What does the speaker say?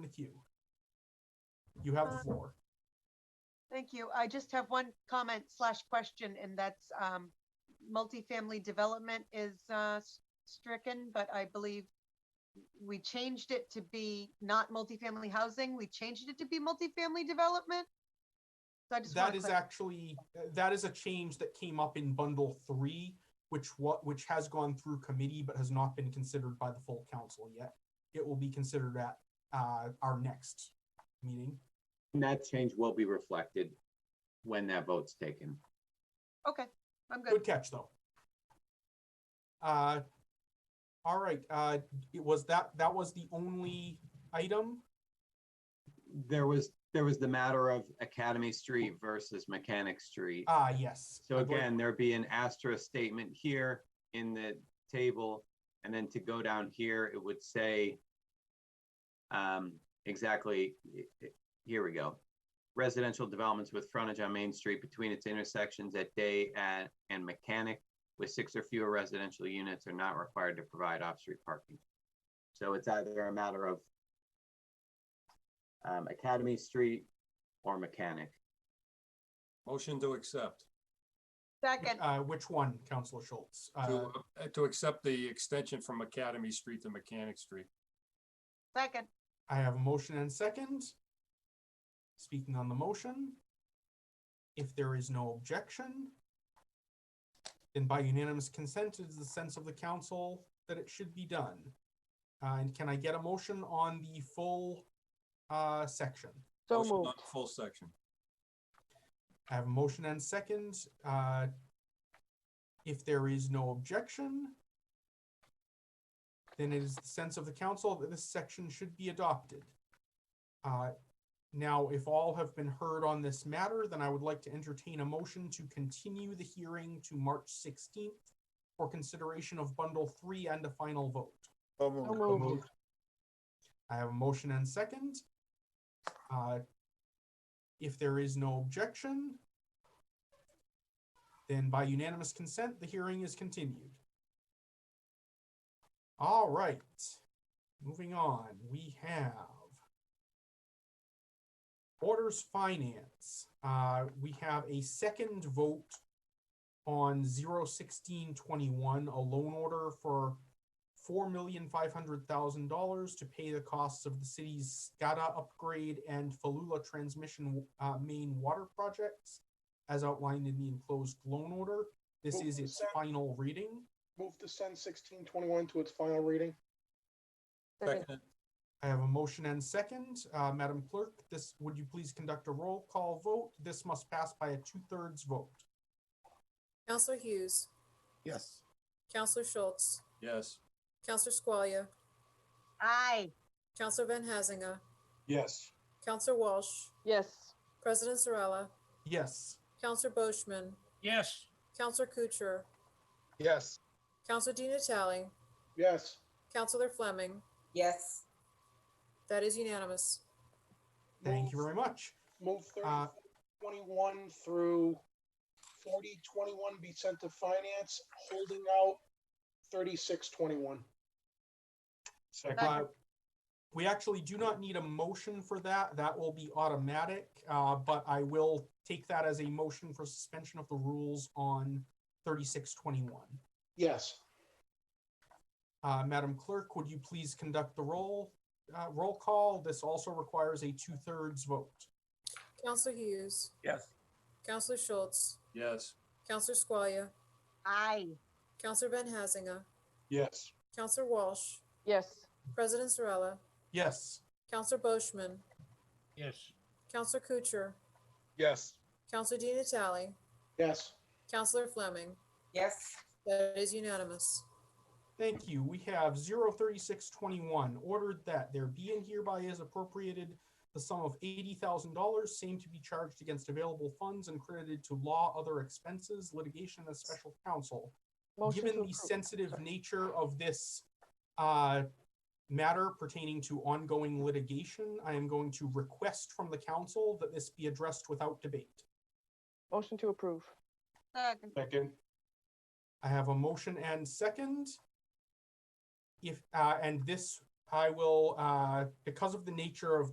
with you. You have the Um, floor. Thank you. I just have one comment slash question, and that's um, multifamily development is uh, s- stricken, but I believe we changed it to be not multifamily housing. We changed it to be multifamily development. So I just want That to is clarify. actually, that is a change that came up in bundle three, which what, which has gone through committee but has not been considered by the full council yet. It will be considered at, uh, our next meeting. And that change will be reflected when that vote's taken. Okay, I'm good. Good catch, though. Uh, all right, uh, it was that, that was the only item. There was, there was the matter of Academy Street versus Mechanic Street. Ah, yes. So I believe- again, there'd be an asterisk statement here in the table, and then to go down here, it would say um, exactly, i- i- here we go. Residential developments with frontage on Main Street between its intersections at Day and, and Mechanic with six or fewer residential units are not required to provide off-street parking. So it's either a matter of um, Academy Street or Mechanic. Motion to accept, Second, Uh, which one, Counselor Schultz? Uh, to, uh, to accept the extension from Academy Street to Mechanic Street. second, I have a motion and second. Speaking on the motion, if there is no objection, then by unanimous consent it is the sense of the council that it should be done. Uh, and can I get a motion on the full, uh, section? So Motion on moved. the Full section. I have a motion and second. Uh, If there is no objection, then it is the sense of the council that this section should be adopted. Uh, Now, if all have been heard on this matter, then I would like to entertain a motion to continue the hearing to March 16th for consideration of Bundle 3 and a final vote. So moved. I have a motion and second. Uh, If there is no objection, then by unanimous consent, the hearing is continued. All right, moving on, we have orders finance. Uh, We have a second vote on 01621, a loan order for four million five hundred thousand dollars to pay the costs of the city's SCADA upgrade and Falula transmission uh, main water projects, as outlined in the enclosed loan order. This Move is to its send. final reading. Move to send sixteen twenty-one to its final reading. Second. Second, I have a motion and second. Uh, Madam Clerk, this, would you please conduct a roll call vote? This must pass by a two-thirds vote. Counselor Hughes. Yes. Counselor Schultz. yes. Counselor Squalia. aye. Counselor Van Hazinga. Yes. Counselor Walsh. Yes. President Zarella. Yes, Counselor Boishman. Yes. Counselor Kucher. Yes. Counselor Di Natale. Yes. Counselor Fleming. Yes, That is unanimous. thank Move- you very much. Move Uh, thirty twenty-one through forty twenty-one be sent to finance, holding out thirty-six twenty-one. Uh, We actually do not need a motion for that. That will be automatic, uh, but I will take that as a motion for suspension of the rules on thirty-six twenty-one. Yes. Uh, Madam Clerk, would you please conduct the roll, uh, roll call? This also requires a two-thirds vote. Counselor Hughes. Yes. Counselor Schultz. Yes, Counselor Squalia. Aye. Counselor Van Hazinga. Yes. Counselor Walsh. Yes. President Zarella. Yes, Counselor Boishman. Yes. Counselor Kucher. Yes. Counselor Di Natale. Yes. Counselor Fleming. yes. That is unanimous. Thank you. We have zero thirty-six twenty-one, ordered that there be and hereby is appropriated the sum of eighty thousand dollars, same to be charged against available funds and credited to law, other expenses, litigation, and special counsel. Motion Given to the approve. sensitive nature of this uh, matter pertaining to ongoing litigation, I am going to request from the council that this be addressed without debate. Motion to approve. Second, Second. I have a motion and second. If, uh, and this I will, uh, because of the nature of